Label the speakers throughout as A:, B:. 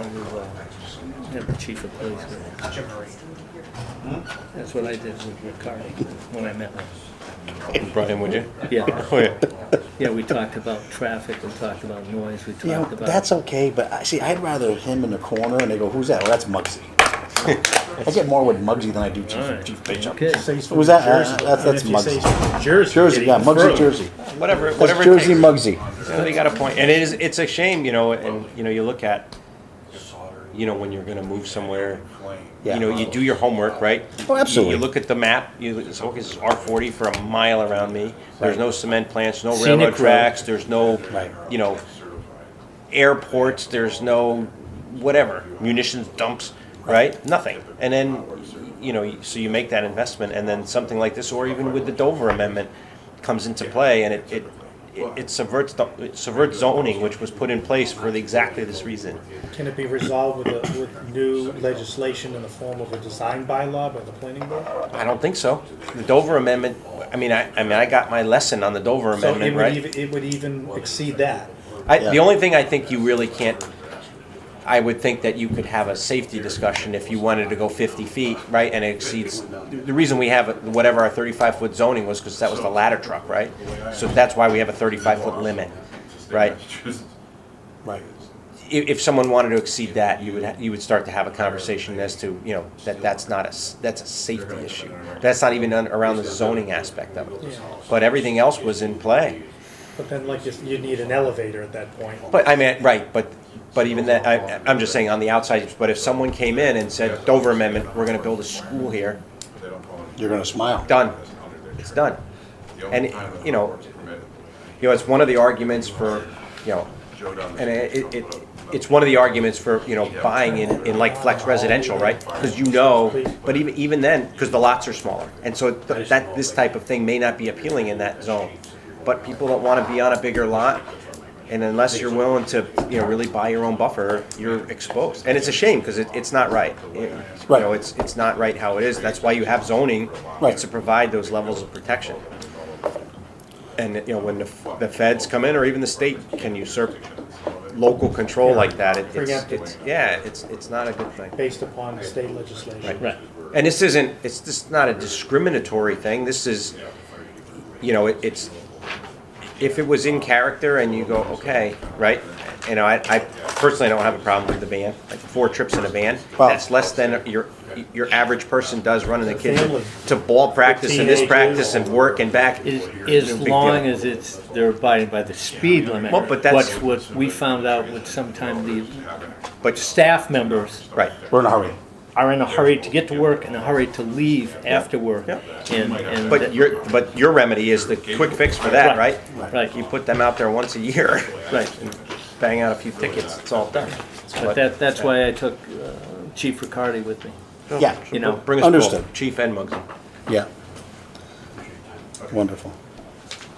A: new, uh, have the chief of police. there.
B: Hmm?
A: That's what I did with Ricardi when I met him.
B: Brian, would you?
A: Yeah,
B: Oh, yeah.
A: yeah, we talked about traffic, we talked about noise, we
C: You know,
A: talked about.
C: that's okay, but I see, I'd rather him in the corner and they go, who's that? Well, that's Muggsy. I get more with Muggsy than I do
A: All right.
C: Chief, Chief Bishop.
A: Okay.
C: Who's that? Uh, that's that's Muggsy.
D: Jersey.
C: Jersey, yeah, Muggsy,
D: further.
C: Jersey.
B: Whatever, whatever
C: That's
B: it
C: Jersey
B: takes.
C: Muggsy.
B: So they got a point, and it is, it's a shame, you know, and, you know, you look at, you know, when you're gonna move somewhere,
C: Yeah.
B: you know, you do your homework, right?
C: Oh, absolutely.
B: You look at the map, you, look- it's, okay, this is R forty for a mile around me, there's no cement plants, no
A: Scenic
B: railroad
A: road.
B: tracks, there's no,
C: Right.
B: you know, airports, there's no whatever, munitions dumps, right? Nothing. And then, you know, so you make that investment, and then something like this, or even with the Dover Amendment, comes into play, and it, it, it subverts, the- it subverts zoning, which was put in place for the- exactly this reason.
D: Can it be resolved with, a, with new legislation in the form of a design bylaw by the planning board?
B: I don't think so. The Dover Amendment, I mean, I, I mean, I got my lesson on the Dover
D: So it
B: Amendment,
D: would
B: right?
D: even, it would even exceed that.
B: I, the
C: Yeah.
B: only thing I think you really can't, I would think that you could have a safety discussion if you wanted to go fifty feet, right, and it exceeds. The reason we have it- whatever our thirty-five foot zoning was, because that was the ladder truck, right? So that's why we have a thirty-five foot limit, right?
C: Right.
B: If, if someone wanted to exceed that, you would, ha- you would start to have a conversation as to, you know, that that's not a, s- that's a safety issue. That's not even on- around the zoning aspect of it. But everything else was in play.
D: But then, like, you, you need an elevator at that point.
B: But I mean, right, but, but even that, I, I'm just saying on the outside, but if someone came in and said Dover Amendment, we're gonna build a school here,
C: You're gonna smile.
B: done, it's done. And, you know, you know, it's one of the arguments for, you know, and it, it- it, it's one of the arguments for, you know, buying in, in like flex residential, right? Because you know, but even, even then, because the lots are smaller. And so th- that, this type of thing may not be appealing in that zone. But people don't want to be on a bigger lot, and unless you're willing to, you know, really buy your own buffer, you're exposed. And it's a shame, because it, it's not right. You
C: Right.
B: know, it's, it's not right how it is. That's why you have zoning,
C: Right.
B: to provide those levels of protection. And, you know, when the, f- the feds come in, or even the state can usurp local control like that, it- it's,
D: Preemptive.
B: it's, yeah, it's, it's not a good thing.
D: Based upon state legislation.
A: Right,
B: And this isn't, it's just not a discriminatory thing, this is, you know, it- it's, if it was in character and you go, okay, right? You know, I, I personally don't have a problem with the van, like four trips in a van,
C: Wow.
B: that's less than your, your average person does running the kids
D: Family.
B: to ball practice and this
D: Teenagers.
B: practice and work and back.
A: As,
B: No
A: as
B: big
A: long
B: deal.
A: as it's, they're abiding by the speed limit.
B: Well, but that's-
A: What's, what we found out with sometime the
B: But,
A: staff members
B: right,
C: We're in a hurry.
A: are in a hurry to get to work and a hurry to leave after work.
B: Yeah.
A: And, and.
B: but your, but your remedy is the quick fix for that, right?
A: Right.
B: You put them out there once a year,
A: Right.
B: bang out a few tickets, it's all done.
A: But that, that's why I took uh, Chief Riccardi with me.
C: Yeah,
A: You know,
B: Bring us
C: Understood.
B: both, Chief and Muggsy.
C: yeah. Wonderful.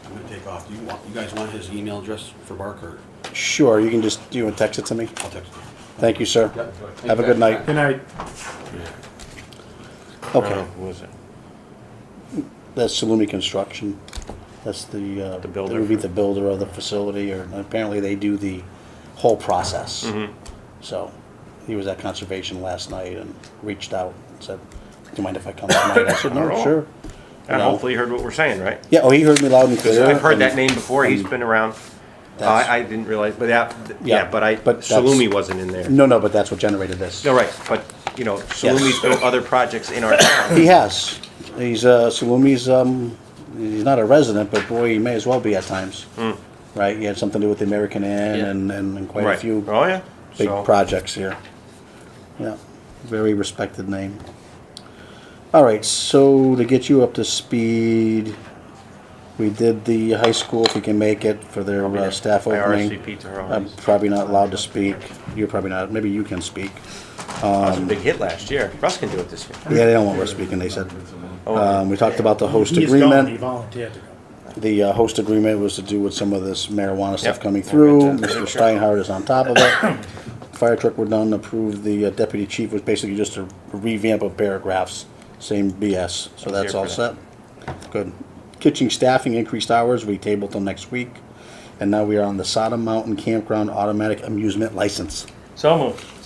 E: I'm gonna take off. Do you want, you guys want his email address for Barker?
C: Sure, you can just, you want to text it to me?
E: I'll text him.
C: Thank you, sir. Have a good night.
D: Good night.
C: Okay,
B: Who was it?
C: that's Salumi Construction. That's the, uh,
B: The builder.
C: It would be the builder of the facility, or apparently they do the whole process.
B: Mm-hmm.
C: So, he was at conservation last night and reached out and said, do you mind if I come tonight? I said,
B: Not at
C: no,
B: all.
C: sure.
B: And
C: No.
B: hopefully you heard what we're saying, right?
C: Yeah, oh, he heard me loud and
B: Because
C: clear.
B: I've heard
C: and-
B: that name before, he's been around.
C: That's-
B: I, I didn't realize, but that, yeah,
C: Yeah,
B: but I,
C: but that's-
B: Salumi wasn't in there.
C: No, no, but that's what generated this.
B: No, right, but, you know, Salumi's built other projects in our town.
C: He has. He's uh, Salumi's. Um, he's not a resident, but boy, he may as well be at times.
B: Hmm.
C: Right? He had something to do with the American Inn
A: Yeah.
C: and, and, and quite
B: Right.
C: a few
B: Oh, yeah.
C: big
B: So-
C: projects here. Yeah, very respected name. All right, so to get you up to speed, we did the high school if we can make it for their uh,
B: there.
C: staff
B: I
C: opening.
B: RSVP to her
C: I'm
B: already.
C: probably not allowed to speak. You're probably not. Maybe you can speak.
B: That was a big hit last year. Russ can do it this year.
C: Yeah, they don't want us speaking. They said.
B: Oh,
C: Um, we talked about the host
D: He is
C: agreement.
D: gone. He volunteered to go.
C: The uh, host agreement was to do with some of this marijuana stuff
B: Yep.
C: coming through.
B: We'll get to
C: Mr.
B: it.
C: Steinhardt is on top of it. Fire truck were done, approved. The uh, deputy chief was basically just a revamp of paragraphs, same BS. So
B: here
C: that's
B: for
C: all set.
B: that.
C: Good. Kitchen staffing increased hours, we tabled till next week. And now we are on the Sodom Mountain Campground Automatic Amusement License.
A: So moved.